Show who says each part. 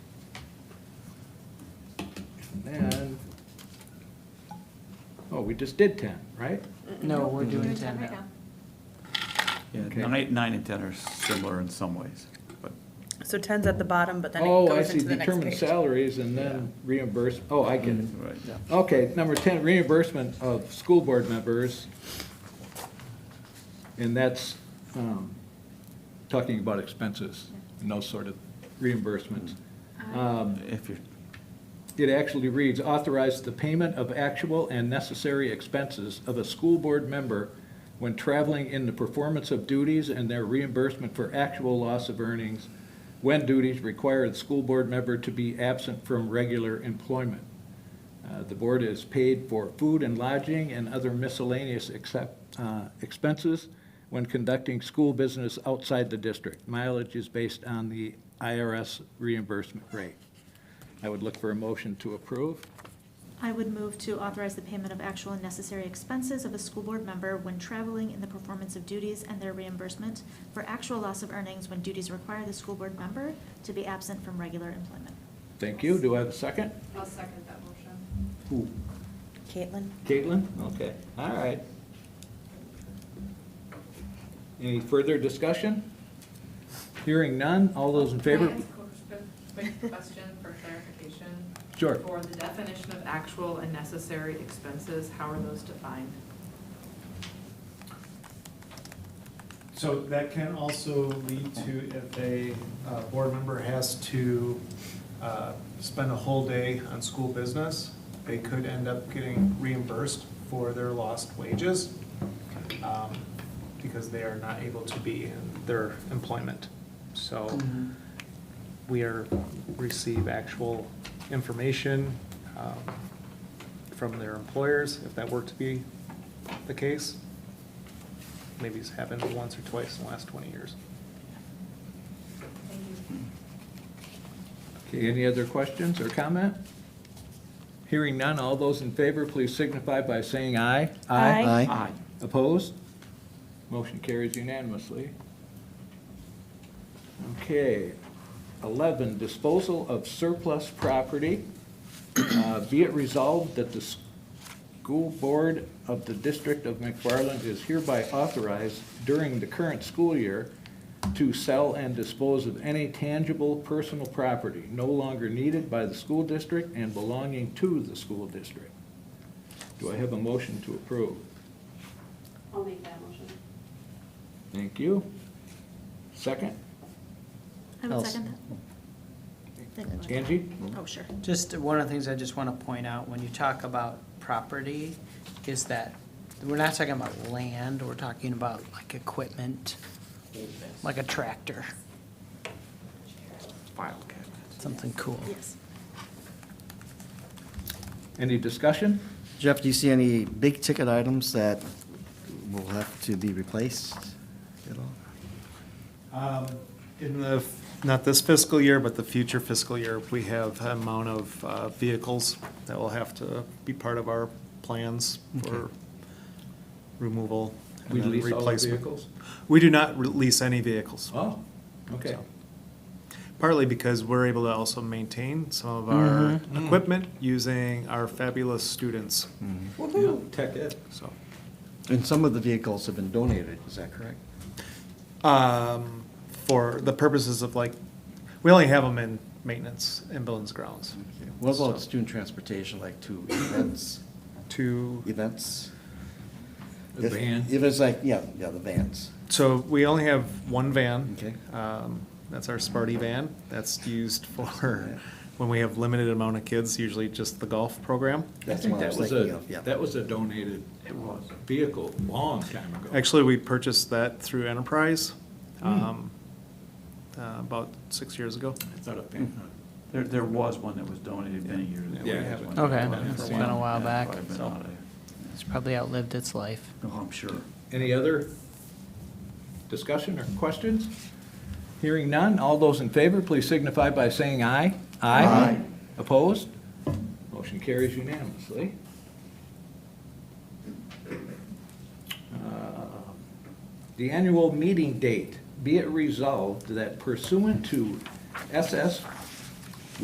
Speaker 1: and, oh, we just did ten, right?
Speaker 2: No, we're doing
Speaker 3: Doing
Speaker 2: ten
Speaker 3: right
Speaker 2: now.
Speaker 4: Yeah,
Speaker 1: Okay.
Speaker 4: nine, nine and 10 are similar in some ways, but
Speaker 5: So 10's at the bottom, but then it
Speaker 1: Oh, I
Speaker 5: goes
Speaker 1: see,
Speaker 5: into the next
Speaker 1: determine
Speaker 5: page.
Speaker 1: salaries and then reimburse, oh, I get it.
Speaker 4: Right.
Speaker 2: Yeah.
Speaker 1: Okay, number ten, reimbursement of school board members. And that's, um, talking about expenses and those sort of reimbursements. Um,
Speaker 4: if you're,
Speaker 1: It actually reads, authorize the payment of actual and necessary expenses of a school board member when traveling in the performance of duties and their reimbursement for actual loss of earnings when duties require the school board member to be absent from regular employment. Uh, The board is paid for food and lodging and other miscellaneous except, uh, expenses when conducting school business outside the district. Mileage is based on the IRS reimbursement rate. I would look for a motion to approve.
Speaker 3: I would move to authorize the payment of actual and necessary expenses of a school board member when traveling in the performance of duties and their reimbursement for actual loss of earnings when duties require the school board member to be absent from regular employment.
Speaker 1: Thank you. Do I have a second?
Speaker 6: I'll second that motion.
Speaker 1: Who?
Speaker 5: Caitlin?
Speaker 1: Caitlin? Okay, all right. Any further discussion? Hearing none. All those in favor?
Speaker 6: Can I ask a quick question for clarification?
Speaker 1: Sure.
Speaker 6: For the definition of actual and necessary expenses, how are those defined?
Speaker 7: So that can also lead to if a uh, board member has to uh, spend a whole day on school business, they could end up getting reimbursed for their lost wages um, because they are not able to be in their employment. So
Speaker 2: Mhm.
Speaker 7: we are, receive actual information um, from their employers, if that were to be the case. Maybe it's happened once or twice in the last twenty years.
Speaker 1: Okay, any other questions or comment? Hearing none. All those in favor, please signify by saying aye.
Speaker 5: Aye.
Speaker 4: Aye.
Speaker 1: Aye. Opposed? Motion carries unanimously. Okay, 11, disposal of surplus property. Uh, Be it resolved that the school board of the District of McFarland is hereby authorized during the current school year to sell and dispose of any tangible personal property no longer needed by the school district and belonging to the school district. Do I have a motion to approve?
Speaker 8: I'll make that motion.
Speaker 1: Thank you. Second,
Speaker 3: I
Speaker 2: I'll
Speaker 3: would
Speaker 2: s-
Speaker 3: second that.
Speaker 1: Angie?
Speaker 3: Oh, sure.
Speaker 2: Just one of the things I just want to point out, when you talk about property, is that we're not talking about land, we're talking about like equipment, like a tractor,
Speaker 4: file cabinet.
Speaker 2: something cool.
Speaker 3: Yes.
Speaker 1: Any discussion?
Speaker 9: Jeff, do you see any big ticket items that will have to be replaced at all?
Speaker 7: Um, In the, f- not this fiscal year, but the future fiscal year, we have an amount of uh, vehicles that will have to be part of our plans for removal. and
Speaker 1: We
Speaker 7: then
Speaker 1: lease all the
Speaker 7: replacement.
Speaker 1: vehicles?
Speaker 7: We do not re- lease any vehicles.
Speaker 1: Oh, okay.
Speaker 7: So, Partly because we're able to also maintain some of our
Speaker 1: Mm.
Speaker 7: equipment using our fabulous students,
Speaker 1: Woo-hoo. Tech ed.
Speaker 7: so.
Speaker 9: Mm-hmm. And some of the vehicles have been donated, is that correct?
Speaker 7: Um, for the purposes of like, we only have them in maintenance and buildings grounds.
Speaker 9: What about
Speaker 7: So,
Speaker 9: student transportation, like to events,
Speaker 7: To,
Speaker 9: events?
Speaker 1: The
Speaker 9: If-
Speaker 1: van.
Speaker 9: If it's like, yeah, yeah, the vans.
Speaker 7: so we only have one van.
Speaker 9: Okay.
Speaker 7: Um, that's our Sparty van. That's used for when we have limited amount of kids, usually just the golf program.
Speaker 1: I
Speaker 9: That's
Speaker 1: think
Speaker 9: what I
Speaker 1: that
Speaker 9: was
Speaker 1: was
Speaker 9: thinking
Speaker 1: a,
Speaker 9: of, yeah.
Speaker 1: that was a donated vehicle long time ago.
Speaker 7: Actually, we purchased that through Enterprise,
Speaker 9: Hmm.
Speaker 7: um, uh, about six years ago.
Speaker 1: It's not a van.
Speaker 4: There, there was one that was donated many years ago.
Speaker 1: Yeah.
Speaker 4: We had one.
Speaker 2: Okay.
Speaker 4: One for
Speaker 2: It's been a while
Speaker 4: Yeah,
Speaker 2: back,
Speaker 4: probably been
Speaker 2: so.
Speaker 4: out of-
Speaker 2: It's probably outlived its life.
Speaker 4: Oh, I'm sure.
Speaker 1: Any other discussion or questions? Hearing none, all those in favor, please signify by saying aye.
Speaker 9: Aye.
Speaker 1: Opposed? Motion carries unanimously. Uh, The annual meeting date, be it resolved that pursuant to SS